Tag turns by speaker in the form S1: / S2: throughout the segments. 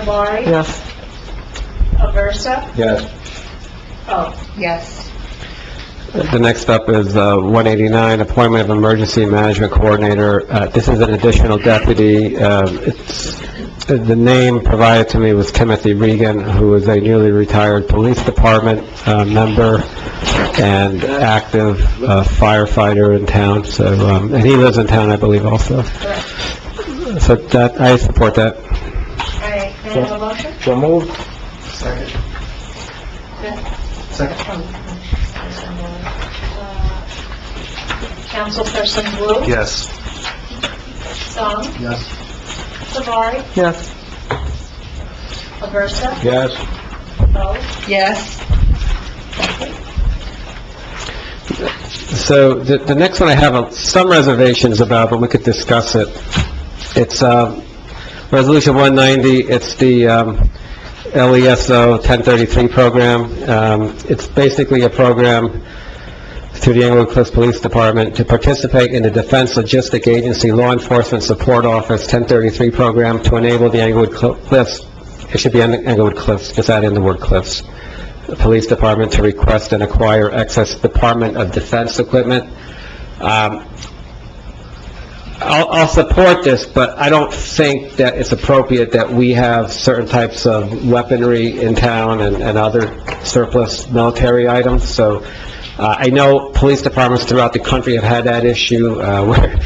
S1: Savari,
S2: Yes.
S1: Aversa,
S3: Yes.
S1: oh,
S4: Yes.
S5: The next up is uh, 189, appointment of emergency management coordinator. Uh, This is an additional deputy. Um, It's The name provided to me was Timothy Regan, who is a newly retired police department uh, member and active uh, firefighter in town, so, um, and he lives in town, I believe, also. So that, I support that.
S1: all right, can I have a motion?
S3: So moved?
S2: Second. Second.
S1: Uh, Councilperson Wu?
S2: Yes.
S1: Song?
S2: Yes.
S1: Savari,
S2: Yes.
S1: Aversa,
S3: Yes.
S1: oh,
S4: Yes.
S5: So the, the next one I have uh, some reservations about, but we could discuss it. It's, um, Resolution 190, it's the um, LESO 1033 program. Um, It's basically a program through the Englewood Cliffs Police Department to participate in the Defense Logistic Agency Law Enforcement Support Office 1033 program to enable the Englewood Cl- Cliffs, it should be Eng- Englewood Cliffs, just add in the word Cliffs, Police Department to request and acquire excess Department of Defense equipment. Um, I'll, I'll support this, but I don't think that it's appropriate that we have certain types of weaponry in town and, and other surplus military items, so, uh, I know police departments throughout the country have had that issue, uh, where,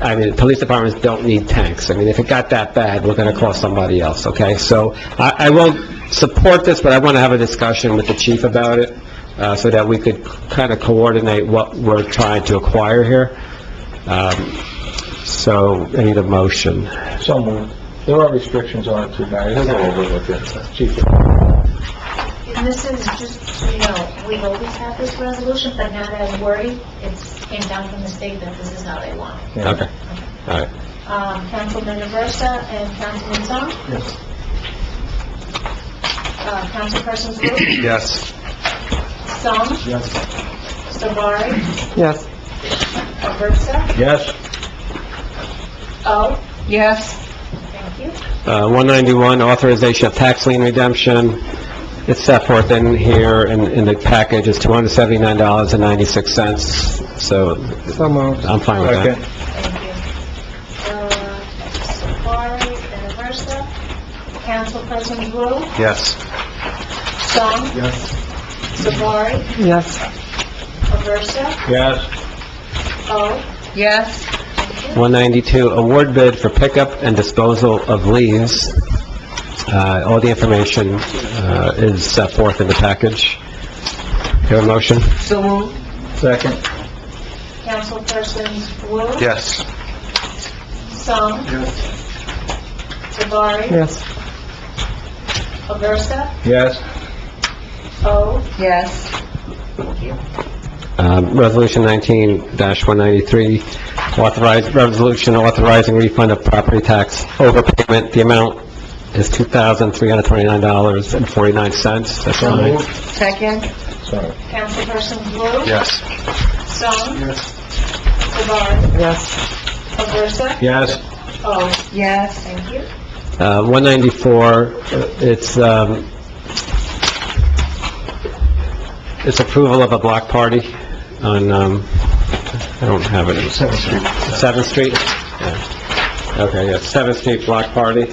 S5: I mean, police departments don't need tanks. I mean, if it got that bad, we're gonna call somebody else, okay? So, I, I will support this, but I wanna have a discussion with the chief about it, uh, so that we could kinda coordinate what we're trying to acquire here. Um, so, I need a motion.
S3: So moved. There are restrictions on it too, Mary. Let's go over it with you. Chief.
S1: and this is just, you know, we've always had this resolution, but not as wordy, it's came down from the state that this is how they want it.
S3: Yeah.
S5: Okay. All right.
S1: Um, Councilman Aversa and Councilman Song?
S2: Yes.
S1: Uh, Councilperson Wu?
S2: Yes.
S1: Song?
S2: Yes.
S1: Savari,
S2: Yes.
S1: Aversa,
S3: Yes.
S1: oh,
S4: Yes.
S1: thank you.
S5: Uh, 191, authorization of tax lien redemption. It's set forth in here, in, in the package, it's $279.96,
S2: So
S5: so
S2: moved.
S5: I'm fine with that.
S3: Second.
S1: Thank you. Uh, Savari and Aversa. Councilperson Wu,
S2: Yes.
S1: Song,
S2: Yes.
S1: Savari,
S2: Yes.
S1: Aversa,
S3: Yes.
S1: oh,
S4: Yes.
S5: 192, award bid for pickup and disposal of leaves. Uh, all the information, uh, is set forth in the package. Your motion?
S4: So moved.
S3: Second.
S1: Councilperson Wu,
S2: Yes.
S1: Song,
S2: Yes.
S1: Savari,
S2: Yes.
S1: Aversa,
S3: Yes.
S1: oh,
S4: Yes.
S5: Um, Resolution 19-193, authorize, resolution authorizing refund of property tax overpayment. The amount is $2,329.49. That's all right.
S4: Second.
S3: Sorry.
S1: Councilperson Wu,
S2: Yes.
S1: Song,
S2: Yes.
S1: Savari,
S4: Yes.
S1: Aversa,
S3: Yes.
S1: oh,
S4: Yes.
S1: thank you.
S5: Uh, 194, uh, it's, um, it's approval of a block party on, um, I don't have it.
S2: Seventh Street.
S5: 7th Street? Yeah. Okay, yeah, 7th Street Block Party.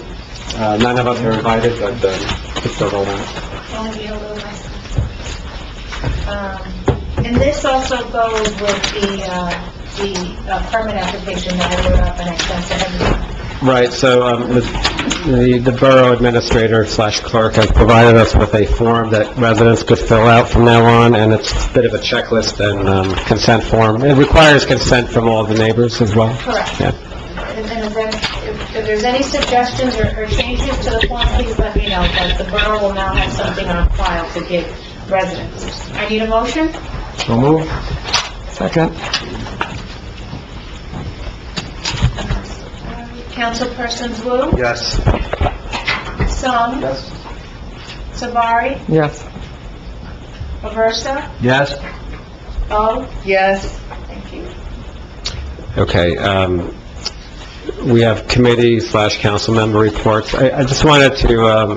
S5: Uh, None of us are invited, but uh, it's still going on.
S1: Only be a little less. Um, And this also goes with the, uh, the uh, permit application that I wrote up and I sent to everyone.
S5: Right, so um, the the Borough Administrator slash Clerk has provided us with a form that residents could fill out from now on, and it's a bit of a checklist and um, consent form. It requires consent from all the neighbors as well.
S1: Correct.
S5: Yeah.
S1: And and if there- if if there's any suggestions or or changes to the form, please let me know, because the borough will now have something on file to give residents. I need a motion?
S3: So moved.
S2: Second.
S1: Councilpersons Wu,
S2: Yes.
S1: Song,
S2: Yes.
S1: Savari,
S2: Yes.
S1: Aversa,
S3: Yes.
S1: Oh,
S4: Yes.
S1: thank you.
S5: Okay, um, we have committee slash council member reports. I I just wanted to um,